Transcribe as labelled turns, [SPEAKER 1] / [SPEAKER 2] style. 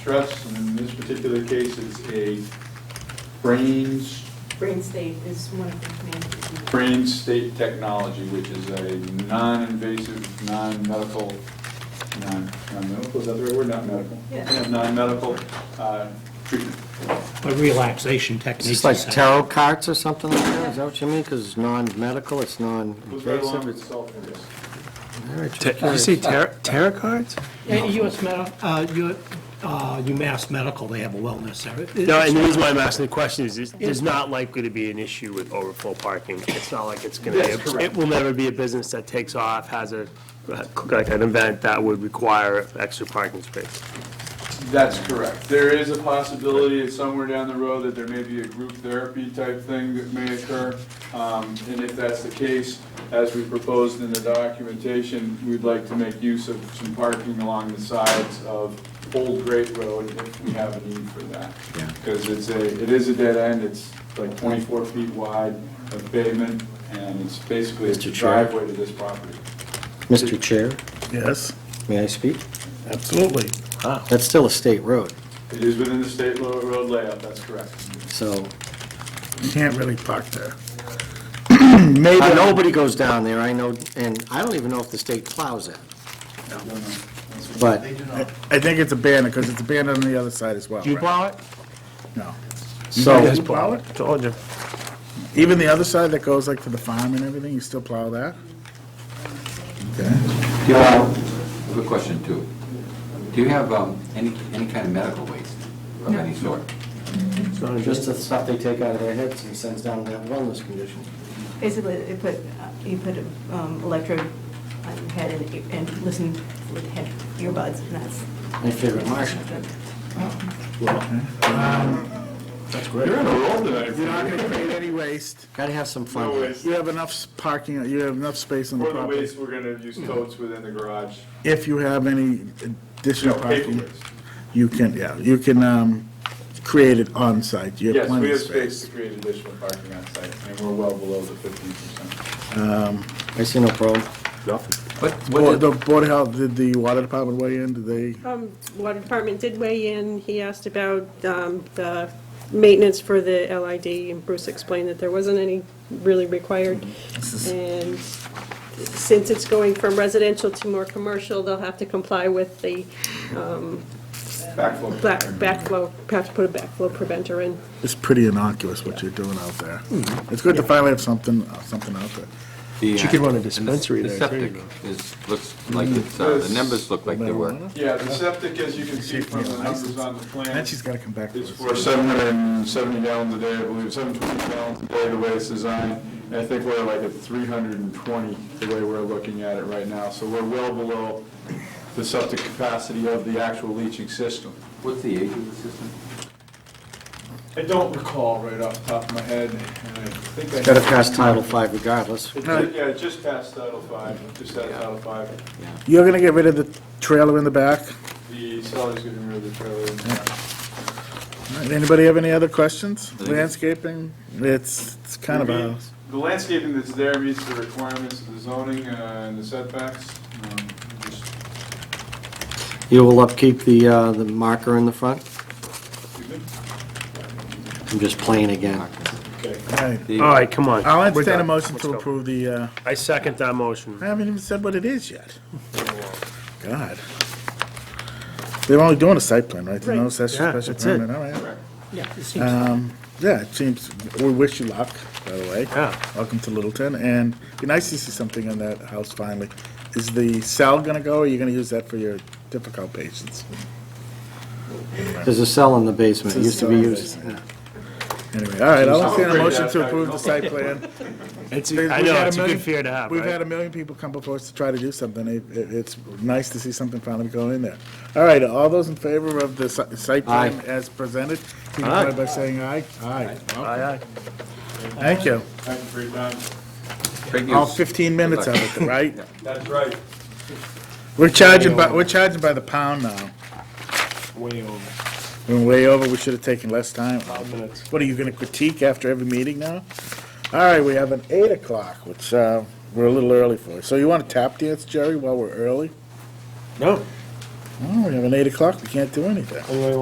[SPEAKER 1] trust, and in this particular case, it's a brains,
[SPEAKER 2] Brain state is one of the main.
[SPEAKER 1] brain state technology, which is a non-invasive, non-medical, non- non-medical, is that the right word? Not medical?
[SPEAKER 2] Yeah.
[SPEAKER 1] Non-medical uh, treatment.
[SPEAKER 3] But relaxation
[SPEAKER 4] Is
[SPEAKER 3] techniques.
[SPEAKER 4] this like
[SPEAKER 3] and-
[SPEAKER 4] tarot cards or something like that? Is that what you mean? Because it's non-medical, it's
[SPEAKER 1] Goes right along
[SPEAKER 4] non-invasive.
[SPEAKER 1] with
[SPEAKER 4] it's-
[SPEAKER 1] self interest.
[SPEAKER 4] all right,
[SPEAKER 5] Ta-
[SPEAKER 4] you're
[SPEAKER 5] Did you
[SPEAKER 4] curious.
[SPEAKER 5] say tar- tarot cards?
[SPEAKER 3] Yeah, US Med, uh, U- uh, UMass Medical, they have a wellness area.
[SPEAKER 5] No, and the reason why I'm asking the question is, is there's not likely to be an issue with overflow parking. It's not like it's gonna,
[SPEAKER 1] That's correct.
[SPEAKER 5] it will never be a business that takes off, has a, like an event that would require extra parking space.
[SPEAKER 1] That's correct. There is a possibility that somewhere down the road that there may be a group therapy type thing that may occur. Um, And if that's the case, as we proposed in the documentation, we'd like to make use of some parking along the sides of Old Great Road if we have a need for that. Because it's a, it is a dead end, it's like 24 feet wide of pavement, and it's basically a
[SPEAKER 4] Mr. Chair.
[SPEAKER 1] driveway to this property.
[SPEAKER 4] Mr. Chair,
[SPEAKER 6] Yes,
[SPEAKER 4] may I speak?
[SPEAKER 6] absolutely.
[SPEAKER 4] That's still a state road,
[SPEAKER 1] It is within the state lo- road layout, that's correct.
[SPEAKER 4] so
[SPEAKER 6] You Can't really park there. Maybe,
[SPEAKER 4] Uh, nobody goes down there, I know, and I don't even know if the state plows it,
[SPEAKER 1] I don't know. That's what-
[SPEAKER 4] but
[SPEAKER 6] I think it's abandoned, because it's abandoned on the other side as well,
[SPEAKER 5] Do you
[SPEAKER 6] right?
[SPEAKER 5] plow it?
[SPEAKER 6] No.
[SPEAKER 4] so,
[SPEAKER 6] You plow it?
[SPEAKER 5] Told you.
[SPEAKER 6] Even the other side that goes like to the farm and everything, you still plow that? Okay.
[SPEAKER 7] Yeah, good question too. Do you have um, any, any kind of medical waste of any sort?
[SPEAKER 4] just the stuff they take out of their heads and sends down to that wellness condition.
[SPEAKER 2] Basically, they put, uh, you put um, electrode on your head and, you- and listen with head earbuds, and that's.
[SPEAKER 4] My favorite Martian. That's great.
[SPEAKER 1] You're on a roll tonight.
[SPEAKER 6] You're not gonna create any waste.
[SPEAKER 4] Gotta have some
[SPEAKER 1] No
[SPEAKER 4] fun.
[SPEAKER 1] waste.
[SPEAKER 6] You have enough s- parking, you have enough space on the
[SPEAKER 1] For the
[SPEAKER 6] property.
[SPEAKER 1] waste, we're gonna use totes within the garage.
[SPEAKER 6] If you have any additional
[SPEAKER 1] Paper
[SPEAKER 6] parking,
[SPEAKER 1] waste.
[SPEAKER 6] you can, yeah, you can, um, create it on site. You have
[SPEAKER 1] Yes, we
[SPEAKER 6] plenty of
[SPEAKER 1] have
[SPEAKER 6] space.
[SPEAKER 1] space to create additional parking on site, and we're well below the fifteen percent.
[SPEAKER 4] I see no problem.
[SPEAKER 7] What,
[SPEAKER 6] Board-
[SPEAKER 7] what,
[SPEAKER 6] The
[SPEAKER 7] did-
[SPEAKER 6] Board of Health, did the water department weigh in? Did they?
[SPEAKER 8] Um, Water Department did weigh in. He asked about um, the maintenance for the LID, and Bruce explained that there wasn't any really required. And since it's going from residential to more commercial, they'll have to comply with the
[SPEAKER 1] Backflow.
[SPEAKER 8] black- backflow, have to put a backflow preventer in.
[SPEAKER 6] It's pretty innocuous what you're doing out there. It's good to finally have something, uh, something out there.
[SPEAKER 7] the,
[SPEAKER 5] She could
[SPEAKER 7] uh,
[SPEAKER 5] run a
[SPEAKER 7] and the s-
[SPEAKER 5] dispensary
[SPEAKER 7] the
[SPEAKER 5] there, too, you know.
[SPEAKER 7] septic is, looks like it's, uh, the numbers look like they were.
[SPEAKER 1] Yeah, the septic, as you can see from the numbers on the plan,
[SPEAKER 6] And she's gotta come back. to
[SPEAKER 1] is
[SPEAKER 6] us.
[SPEAKER 1] for seven hundred and seventy gallons a day, I believe, seven twenty gallons a day, the way it's designed. And I think we're like at three hundred and twenty, the way we're looking at it right now, so we're well below the septic capacity of the actual leaching system.
[SPEAKER 7] What's the age of the system?
[SPEAKER 1] I don't recall right off the top of my head, and I think I.
[SPEAKER 4] Gotta pass Title V regardless.
[SPEAKER 1] It did, Yeah, it just passed Title Five, just out of Title Five.
[SPEAKER 6] You're gonna get rid of the trailer in the back?
[SPEAKER 1] The seller's getting rid of the trailer.
[SPEAKER 6] All right, Anybody have any other questions? Landscaping, it's, it's kind of a,
[SPEAKER 1] The landscaping that's there meets the requirements of the zoning uh, and the setbacks. Um, just-
[SPEAKER 4] You will upkeep the, uh, the marker in the front?
[SPEAKER 1] excuse me?
[SPEAKER 4] I'm just playing again.
[SPEAKER 6] all right.
[SPEAKER 5] All right, come on.
[SPEAKER 6] I'll
[SPEAKER 5] We're
[SPEAKER 6] entertain a
[SPEAKER 5] done.
[SPEAKER 6] motion
[SPEAKER 5] Let's
[SPEAKER 6] to
[SPEAKER 5] go.
[SPEAKER 6] approve the, uh,
[SPEAKER 5] I second that
[SPEAKER 6] I
[SPEAKER 5] motion.
[SPEAKER 6] haven't even said what it is yet. God. They're only doing a site plan, right? There's No
[SPEAKER 3] Right.
[SPEAKER 6] special,
[SPEAKER 5] Yeah,
[SPEAKER 6] special
[SPEAKER 5] that's it.
[SPEAKER 6] permit, all right.
[SPEAKER 3] Yeah, it seems-
[SPEAKER 6] Yeah, it seems, we wish you luck, by the way.
[SPEAKER 5] Yeah.
[SPEAKER 6] Welcome to Littleton, and it'd be nice to see something in that house finally. Is the cell gonna go, or are you gonna use that for your difficult patients?
[SPEAKER 4] There's a cell in the basement, it used to be
[SPEAKER 6] There's a
[SPEAKER 4] used.
[SPEAKER 6] cell in Anyway, all right, I'll entertain a
[SPEAKER 1] afraid
[SPEAKER 6] motion
[SPEAKER 1] that-
[SPEAKER 6] to approve the site plan.
[SPEAKER 5] It's,
[SPEAKER 6] We've
[SPEAKER 5] I know,
[SPEAKER 6] had
[SPEAKER 5] it's a
[SPEAKER 6] million-
[SPEAKER 5] good fear to have,
[SPEAKER 6] We've had
[SPEAKER 5] right?
[SPEAKER 6] a million people come before us to try to do something. It- it- It's nice to see something finally go in there. All right, all those in favor of the si- site plan
[SPEAKER 4] Aye.
[SPEAKER 6] as presented, signify by saying aye. Aye.
[SPEAKER 5] Aye, aye.
[SPEAKER 6] Thank you.
[SPEAKER 1] Thank you for your time.
[SPEAKER 7] Great
[SPEAKER 6] All
[SPEAKER 7] use.
[SPEAKER 6] 15 minutes of it, right?
[SPEAKER 1] That's right.
[SPEAKER 6] We're charging by, we're charging by the pound now.
[SPEAKER 5] Way over.
[SPEAKER 6] We're way over, we should have taken less time.
[SPEAKER 5] Five minutes.
[SPEAKER 6] What, are you gonna critique after every meeting now? All right, we have an eight o'clock, which, uh, we're a little early for. So you wanna tap dance, Jerry, while we're early?
[SPEAKER 5] No,
[SPEAKER 6] Oh, we have an eight o'clock, we can't do anything.